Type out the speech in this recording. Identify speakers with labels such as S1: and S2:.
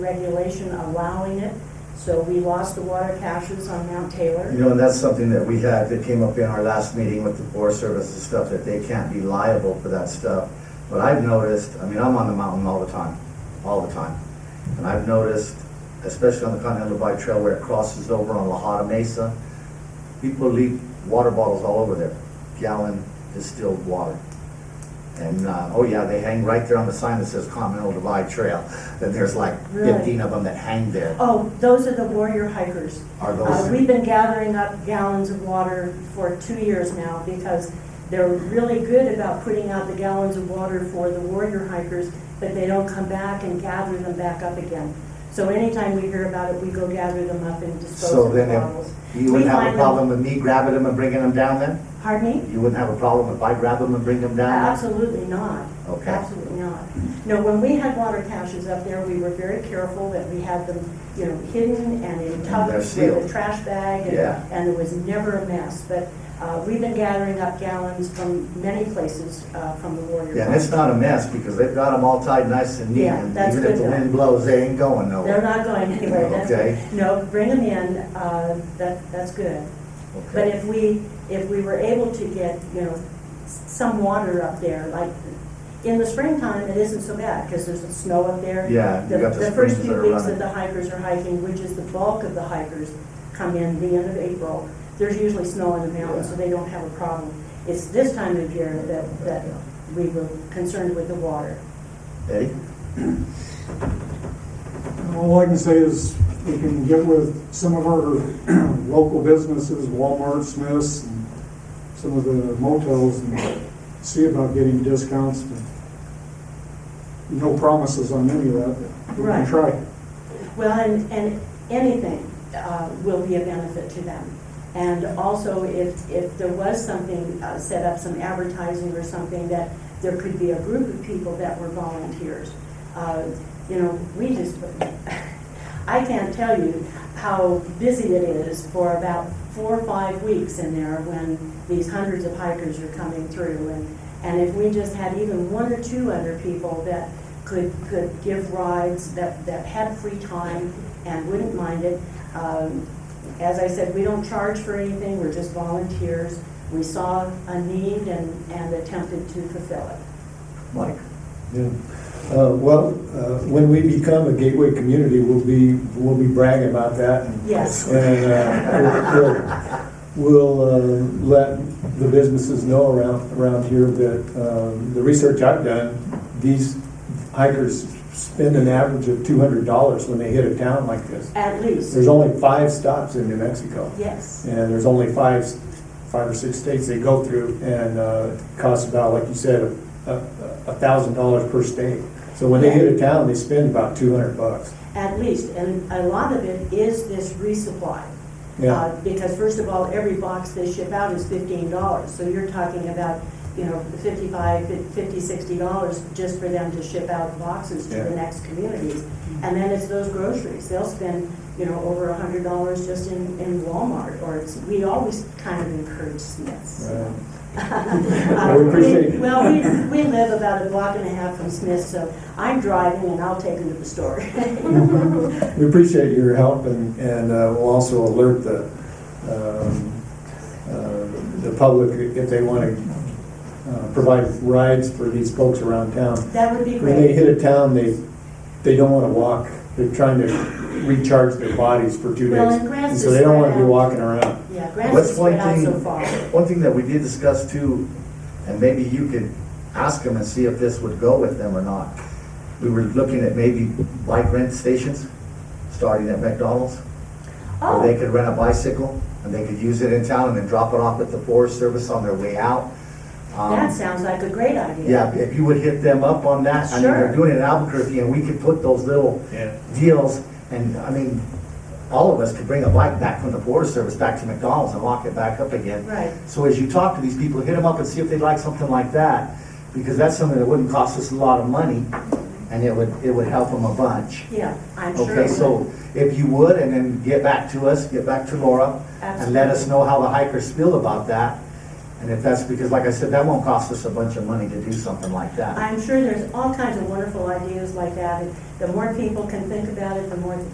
S1: regulation allowing it, so we lost the water caches on Mount Taylor.
S2: You know, and that's something that we had, that came up in our last meeting with the Forest Service and stuff, that they can't be liable for that stuff. But I've noticed, I mean, I'm on the mountain all the time, all the time. And I've noticed, especially on the Continental Divide Trail where it crosses over on La Hada Mesa, people leave water bottles all over there, gallon distilled water. And, uh, oh yeah, they hang right there on the sign that says Continental Divide Trail. And there's like
S1: Really?
S2: fifteen of them that hang there.
S1: Oh, those are the warrior hikers.
S2: Are
S1: Uh,
S2: those,
S1: We've been gathering up gallons of water for two years now because they're really good about putting out the gallons of water for the warrior hikers, but they don't come back and gather them back up again. So anytime we hear about it, we go gather them up and dispose
S2: so
S1: of the
S2: then if
S1: bottles.
S2: You
S1: We
S2: wouldn't have
S1: find
S2: a
S1: them-
S2: problem with me grabbing them and bringing them down then?
S1: Pardon me?
S2: You wouldn't have a problem if I grab them and bring them down?
S1: Uh, Absolutely not.
S2: Okay.
S1: Absolutely not. No, when we had water caches up there, we were very careful that we had them, you know, hidden and in
S2: they're
S1: tubs with a
S2: sealed.
S1: trash bag. and-
S2: Yeah.
S1: And there was never a mess, but uh, we've been gathering up gallons from many places uh, from the Warrior.
S2: Yeah, and it's not a mess because they've got them all tied nice and neat
S1: Yeah,
S2: and
S1: that's
S2: even
S1: good
S2: if the
S1: though.
S2: wind blows, they ain't going
S1: They're
S2: nowhere.
S1: not going anywhere. That's-
S2: Okay.
S1: No, bring them in, uh, that, that's good. But
S2: Okay.
S1: if we, if we were able to get, you know, s- some water up there, like, in the springtime, it isn't so bad, because there's snow up there.
S2: Yeah, you got the
S1: first
S2: springs that
S1: few
S2: are
S1: weeks that
S2: running.
S1: the hikers are hiking, which is the bulk of the hikers, come in the end of April, there's usually snow in the mountains, so they don't have a problem. It's this time of year that, that we were concerned with the water.
S2: Eddie?
S3: All I can say is we can get with some of our local businesses, Walmart, Smith's, and some of the motels and see about getting discounts. No promises on any of that, but we
S1: Right.
S3: can try.
S1: Well, and, and anything uh, will be a benefit to them. And also, if, if there was something, uh, set up some advertising or something, that there could be a group of people that were volunteers. Uh, You know, we just, I can't tell you how busy it is for about four or five weeks in there when these hundreds of hikers are coming through. And, and if we just had even one or two other people that could, could give rides, that, that had free time and wouldn't mind it. Um, As I said, we don't charge for anything, we're just volunteers. We saw a need and, and attempted to fulfill it.
S2: Mike?
S4: Yeah. Uh, Well, uh, when we become a gateway community, we'll be, we'll be bragging about that. and-
S1: Yes.
S4: And uh, we'll, we'll, we'll uh, let the businesses know around, around here that um, the research I've done, these hikers spend an average of $200 when they hit a town like this.
S1: At least,
S4: There's only five stops in New Mexico.
S1: yes.
S4: And there's only five, five or six states they go through, and uh, it costs about, like you said, a, a thousand dollars per state. So when they hit a town, they spend about two hundred bucks.
S1: At least, and a lot of it is this resupply.
S4: Yeah.
S1: Uh, Because first of all, every box they ship out is fifteen dollars, so you're talking about, you know, fifty-five, fifty, sixty dollars just for them to ship out boxes to the
S4: Yeah.
S1: next communities. And then it's those groceries, they'll spend, you know, over a hundred dollars just in, in Walmart, or it's, we always kind of encourage Smiths.
S4: Right.
S1: Uh,
S4: We appreciate it.
S1: Well, we, we live about a block and a half from Smith, so I'm driving and I'll take them to the store.
S4: We appreciate your help, and, and uh, we'll also alert the, um, uh, the public if they want to provide rides for these folks around town.
S1: That would be
S4: When they
S1: great.
S4: hit a town, they, they don't want to walk. They're trying to recharge their bodies for two days.
S1: Well, and grass
S4: And
S1: is
S4: so they don't want to be
S1: spread out.
S4: walking around.
S1: Yeah, Grants
S2: What's
S1: is spread
S2: one
S1: out so
S2: thing-
S1: far.
S2: One thing that we did discuss too, and maybe you could ask them and see if this would go with them or not. We were looking at maybe bike rent stations, starting at McDonald's. where they
S1: Oh,
S2: could rent a bicycle and they could use it in town and then drop it off at the Forest Service on their way out. Um,
S1: that sounds like a great idea.
S2: Yeah, if you would hit them up on that, I mean,
S1: Sure.
S2: they're doing it in Albuquerque and we could put those little deals and, I mean, all of us could bring a bike back from the Forest Service back to McDonald's and lock it back up again.
S1: Right.
S2: So as you talk to these people, hit them up and see if they'd like something like that, because that's something that wouldn't cost us a lot of money and it would, it would help them a bunch.
S1: Yeah, I'm sure.
S2: Okay,
S1: it would.
S2: so if you would, and then get back to us, get back to Laura, and let us know how the hikers feel about that. And if that's, because like I said, that won't cost us a bunch of money to do something like that.
S1: I'm sure there's all kinds of wonderful ideas like that. and The more people can think about it, the more